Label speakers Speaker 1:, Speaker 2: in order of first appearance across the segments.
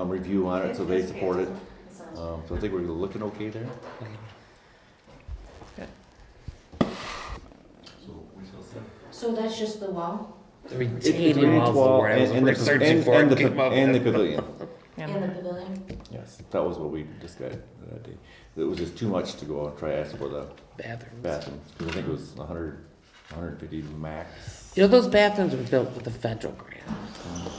Speaker 1: um, review on it, so they
Speaker 2: That's okay.
Speaker 1: support it.
Speaker 2: That sounds-
Speaker 1: Um, so I think we're looking okay there.
Speaker 2: So that's just the wall
Speaker 3: The
Speaker 1: It's- it's
Speaker 3: retaining
Speaker 1: retaining
Speaker 3: wall's the
Speaker 1: wall
Speaker 3: word I was
Speaker 1: and- and the-
Speaker 3: searching
Speaker 1: and-
Speaker 3: for.
Speaker 1: and
Speaker 3: it
Speaker 1: the
Speaker 3: came
Speaker 1: pa-
Speaker 3: up.
Speaker 1: And the pavilion.
Speaker 2: and the pavilion?
Speaker 1: Yes, that was what we discussed that day. It was just too much to go out and try to ask for the
Speaker 3: Bathrooms.
Speaker 1: bathrooms, because I think it was 100, 150 max.
Speaker 3: You know, those bathrooms were built with the federal grant.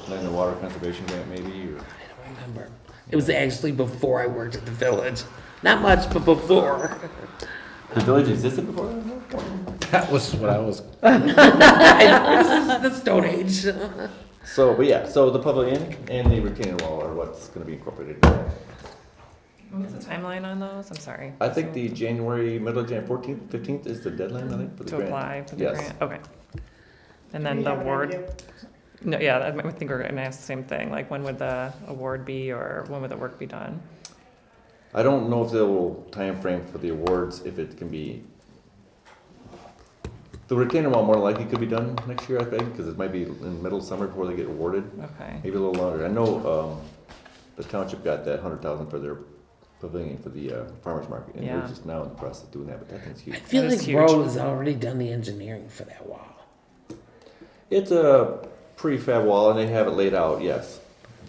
Speaker 1: Like the water conservation grant maybe, or,
Speaker 3: I don't remember. It was actually before I worked at the village. Not much, but before.
Speaker 1: the village existed before that?
Speaker 4: That was what I was.
Speaker 3: I know, this is the Stone Age.
Speaker 1: So, but yeah, so the pavilion and the retaining wall are what's gonna be incorporated.
Speaker 5: What's the timeline on those? I'm sorry.
Speaker 1: I think the January, middle of January, fourteenth, fifteenth is the deadline, I think, for the
Speaker 5: To
Speaker 1: grant.
Speaker 5: apply for the
Speaker 1: Yes.
Speaker 5: grant, okay. And then the award, no, yeah, I I think we're gonna ask the same thing, like when would the award be or when would the work be done?
Speaker 1: I don't know if they will timeframe for the awards, if it can be. The retaining wall more likely could be done next year, I think, because it might be in middle summer before they get awarded,
Speaker 5: Okay,
Speaker 1: maybe a little longer. I know, um, the township got that hundred thousand for their pavilion for the, uh, farmer's market, and
Speaker 5: Yeah.
Speaker 1: they're just now in the process of doing that, but that thing's
Speaker 3: I
Speaker 1: huge.
Speaker 3: feel
Speaker 5: That is
Speaker 3: like
Speaker 5: huge.
Speaker 3: Road has already done the engineering for that wall.
Speaker 1: It's a prefab wall and they have it laid out, yes.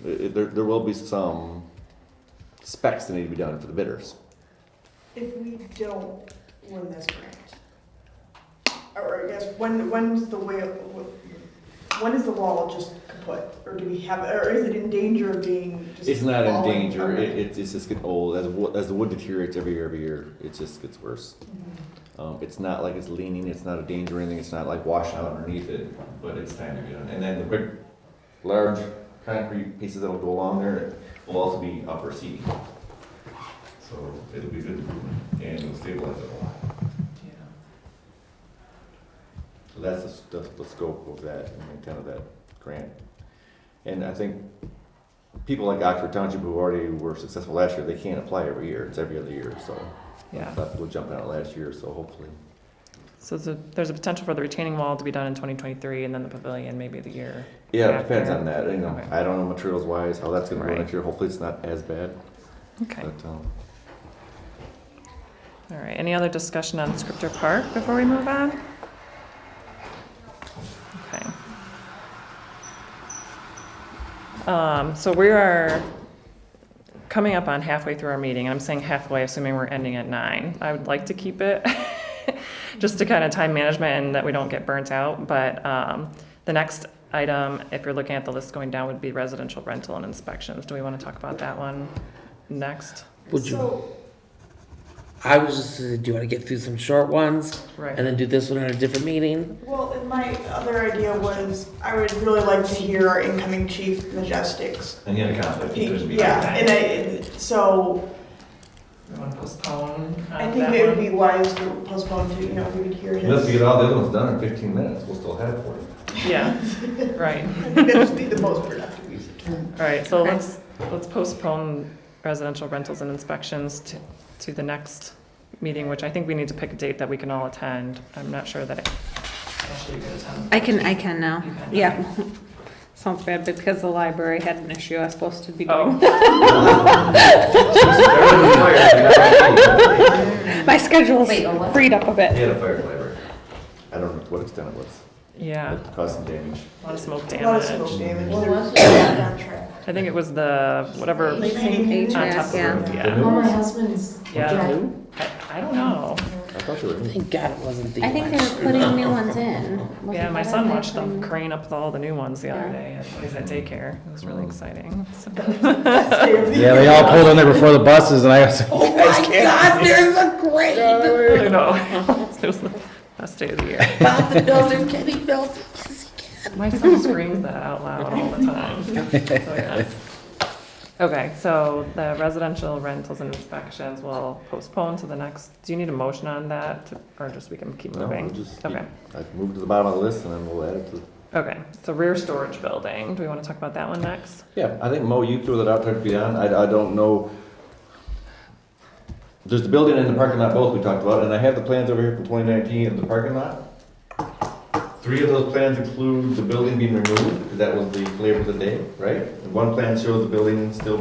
Speaker 1: It- it- There, there will be some specs that need to be done for the bidders.
Speaker 6: If we don't win this grant, or I guess, when, when's the way, when is the wall just kaput? Or do we have, or is it in danger of being just?
Speaker 1: It's not in
Speaker 6: falling?
Speaker 1: danger,
Speaker 6: Okay.
Speaker 1: it, it's, it's just getting old, as, wo- as the wood deteriorates every year, every year, it just gets worse.
Speaker 6: Mm-hmm.
Speaker 1: Um, it's not like it's leaning, it's not a danger or anything, it's not like washing out underneath it, but it's time to get on. And then the big, large concrete pieces that'll go along there will also be upper seating. So it'll be good and it'll stabilize it a lot. So that's the, s- the, the scope of that, and the intent of that grant. And I think people like Oxford Township who already were successful last year, they can't apply every year, it's every other year, so.
Speaker 5: yeah.
Speaker 1: That's what jumped out last year, so hopefully.
Speaker 5: So there's a- there's a potential for the retaining wall to be done in 2023 and then the pavilion maybe the year.
Speaker 1: Yeah, it
Speaker 5: after.
Speaker 1: depends on that, you know,
Speaker 5: Okay.
Speaker 1: I don't know materials wise, how that's gonna go
Speaker 5: Right.
Speaker 1: next year, hopefully it's not as bad,
Speaker 5: Okay,
Speaker 1: but, um,
Speaker 5: all right. Any other discussion on Scripter Park before we move on? Okay. Um, so we are coming up on halfway through our meeting, and I'm saying halfway, assuming we're ending at nine. I would like to keep it, just to kind of time management and that we don't get burnt out, but, um, the next item, if you're looking at the list going down, would be residential rental and inspections. Do we want to talk about that one next?
Speaker 3: Would you?
Speaker 6: So,
Speaker 3: I was just, do you want to get through some short ones
Speaker 5: Right.
Speaker 3: and then do this one at a different meeting?
Speaker 6: well, and my other idea was, I would really like to hear our incoming chief majestics.
Speaker 1: And the other conflict, it couldn't be.
Speaker 6: Yeah, and I, and so
Speaker 5: You want to postpone uh,
Speaker 6: I think it would be wise to postpone to, you know, if we could hear his.
Speaker 1: Unless we get all the other ones done in fifteen minutes, we'll still have it for you.
Speaker 5: Yeah, right.
Speaker 6: I think That'd just be the most productive use of time.
Speaker 5: All right, so let's, let's postpone residential rentals and inspections to, to the next meeting, which I think we need to pick a date that we can all attend. I'm not sure that. Actually, you
Speaker 7: I can, I can now.
Speaker 5: You can.
Speaker 7: Yeah. Sounds bad because the library had an issue. I was supposed to be going.
Speaker 5: Oh,
Speaker 7: My schedule's
Speaker 2: Wait, oh, what?
Speaker 7: freed up a
Speaker 1: They
Speaker 7: bit.
Speaker 1: had a fire in the library. I don't know to what extent it was,
Speaker 5: yeah,
Speaker 1: but it caused some damage.
Speaker 5: a lot of smoke
Speaker 6: A lot of
Speaker 5: damage.
Speaker 6: smoke damage.
Speaker 2: What
Speaker 6: There
Speaker 2: was it? Contract.
Speaker 5: I think it was the, whatever,
Speaker 2: Like,
Speaker 6: Painting.
Speaker 5: on top of the
Speaker 7: Yeah.
Speaker 5: roof,
Speaker 1: The
Speaker 5: yeah.
Speaker 1: new
Speaker 2: Oh, my
Speaker 1: ones?
Speaker 2: husband's.
Speaker 5: Yeah.
Speaker 2: dad.
Speaker 5: I, I don't know.
Speaker 1: I thought they were new.
Speaker 3: Thank God it wasn't the
Speaker 7: I think they
Speaker 3: election.
Speaker 7: were putting new ones in.
Speaker 5: Yeah, my son watched them crane up with all the new ones the other day. He's at daycare. It was really exciting. So-
Speaker 4: Yeah, they all pulled in there before the buses, and I was. like,
Speaker 3: Oh my God, there's a grade
Speaker 5: I know. It was the best day of the year.
Speaker 3: about the builder, Kenny Builder.
Speaker 5: My son screams that out loud all the time. So, yeah. Okay, so the residential rentals and inspections will postpone to the next, do you need a motion on that, to- or just we can keep
Speaker 1: No, we'll
Speaker 5: moving?
Speaker 1: just keep-
Speaker 5: Okay,
Speaker 1: I've moved to the bottom of the list and then we'll add it to.
Speaker 5: okay, so rear storage building, do we want to talk about that one next?
Speaker 1: Yeah, I think Mo, you threw that out there to be on. I, I don't know. There's the building and the parking lot both we talked about, and I have the plans over here from twenty nineteen of the parking lot. Three of those plans include the building being removed, because that was the flavor of the day, right? And one plan shows the building still